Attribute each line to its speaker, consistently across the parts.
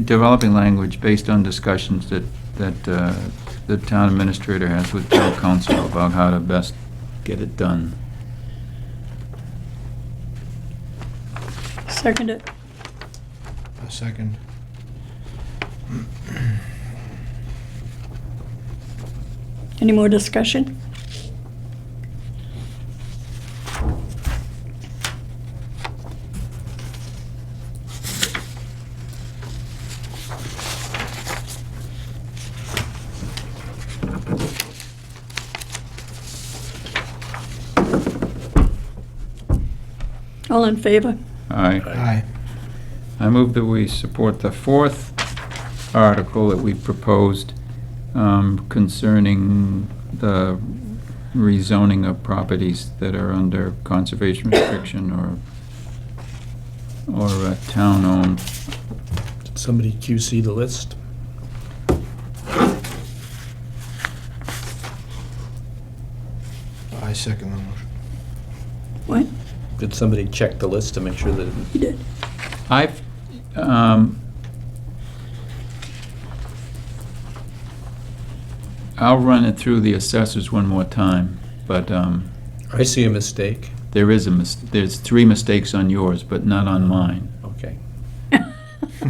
Speaker 1: developing language based on discussions that, that uh, the town administrator has with town council about how to best get it done.
Speaker 2: Second it.
Speaker 3: A second.
Speaker 2: Any more discussion? All in favor?
Speaker 1: Aye.
Speaker 3: Aye.
Speaker 1: I move that we support the fourth article that we proposed um, concerning the rezoning of properties that are under conservation restriction or, or uh, town-owned.
Speaker 4: Did somebody QC the list?
Speaker 3: I second the motion.
Speaker 2: What?
Speaker 4: Did somebody check the list to make sure that
Speaker 2: You did.
Speaker 1: I've, um, I'll run it through the assessors one more time, but, um,
Speaker 4: I see a mistake?
Speaker 1: there is a mis, there's three mistakes on yours, but not on mine.
Speaker 4: Okay.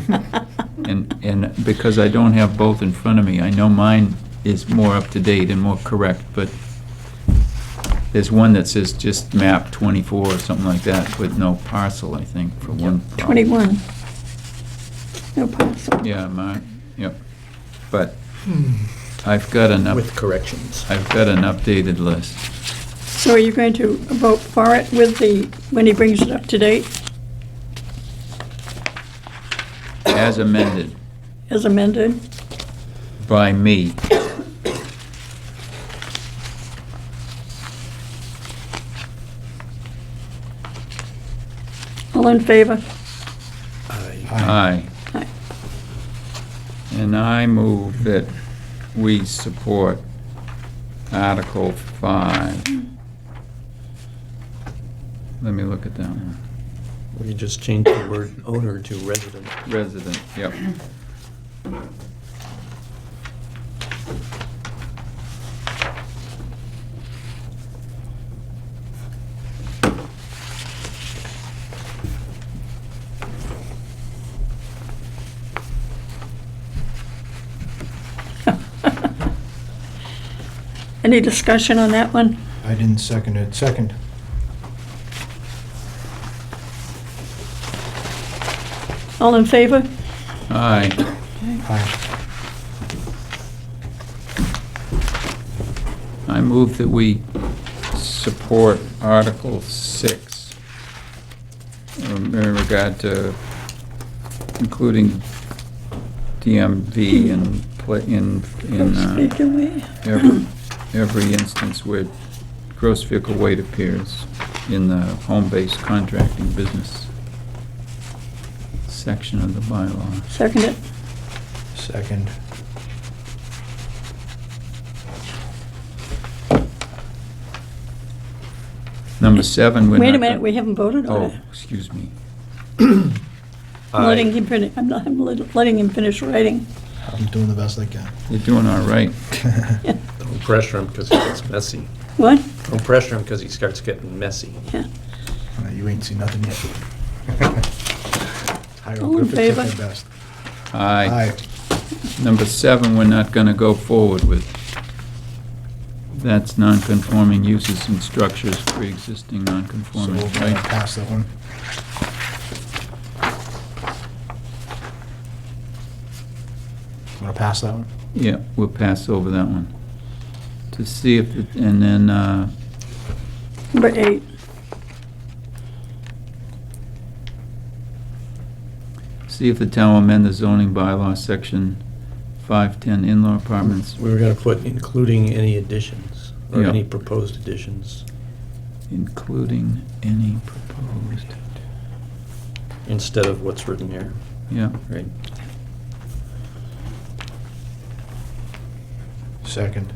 Speaker 1: And, and because I don't have both in front of me, I know mine is more up to date and more correct, but there's one that says just map twenty-four or something like that, with no parcel, I think, for one. property.
Speaker 2: 21. No parcel.
Speaker 1: Yeah, my, yep. But I've got an up,
Speaker 4: With corrections.
Speaker 1: I've got an updated list.
Speaker 2: So are you going to vote for it with the, when he brings it up to date
Speaker 1: as amended
Speaker 2: as amended?
Speaker 1: by me.
Speaker 2: All in favor?
Speaker 4: I
Speaker 1: Aye.
Speaker 2: Aye.
Speaker 1: And I move that we support Article 5. Let me look at that one.
Speaker 4: We just changed the word owner to resident.
Speaker 1: Resident, yep.
Speaker 2: Any discussion on that one?
Speaker 3: I didn't second it. Second.
Speaker 2: All in favor?
Speaker 1: Aye.
Speaker 3: Aye.
Speaker 1: I move that we support Article 6 um, in regard to including DMV in, pla- in, in
Speaker 2: Speak
Speaker 1: uh,
Speaker 2: away.
Speaker 1: every every instance where gross vehicle weight appears in the home-based contracting business section of the bylaw.
Speaker 2: Second it.
Speaker 3: Second.
Speaker 1: Number 7, we're
Speaker 2: Wait a
Speaker 1: not
Speaker 2: minute,
Speaker 1: go-
Speaker 2: we haven't voted on
Speaker 1: Oh,
Speaker 2: it.
Speaker 1: excuse me. Oh,
Speaker 2: I'm letting him finish, I'm not, I'm let- letting him finish writing.
Speaker 3: I'm doing the best I can.
Speaker 1: You're doing all right.
Speaker 4: Don't pressure him because he gets messy.
Speaker 2: What?
Speaker 4: Don't pressure him because he starts getting messy.
Speaker 2: Yeah.
Speaker 3: Uh, You ain't seen nothing yet.
Speaker 2: All in
Speaker 3: Hieroglyphics at their
Speaker 2: favor?
Speaker 3: best.
Speaker 1: Aye.
Speaker 3: Aye.
Speaker 1: Number seven, we're not gonna go forward with. That's non-conforming uses and structures pre-existing
Speaker 3: So
Speaker 1: non-conforming,
Speaker 3: we're gonna
Speaker 1: right?
Speaker 3: pass that one. Want to pass that one?
Speaker 1: Yeah, we'll pass over that one. To see if, it- and then, uh,
Speaker 2: Number eight.
Speaker 1: see if the town will amend the zoning bylaw, section five-ten in-law apartments,
Speaker 4: We were going to put including any additions or
Speaker 1: Yeah.
Speaker 4: any proposed additions
Speaker 1: including any proposed.
Speaker 4: instead of what's written here,
Speaker 1: Yeah,
Speaker 4: right?
Speaker 3: Second.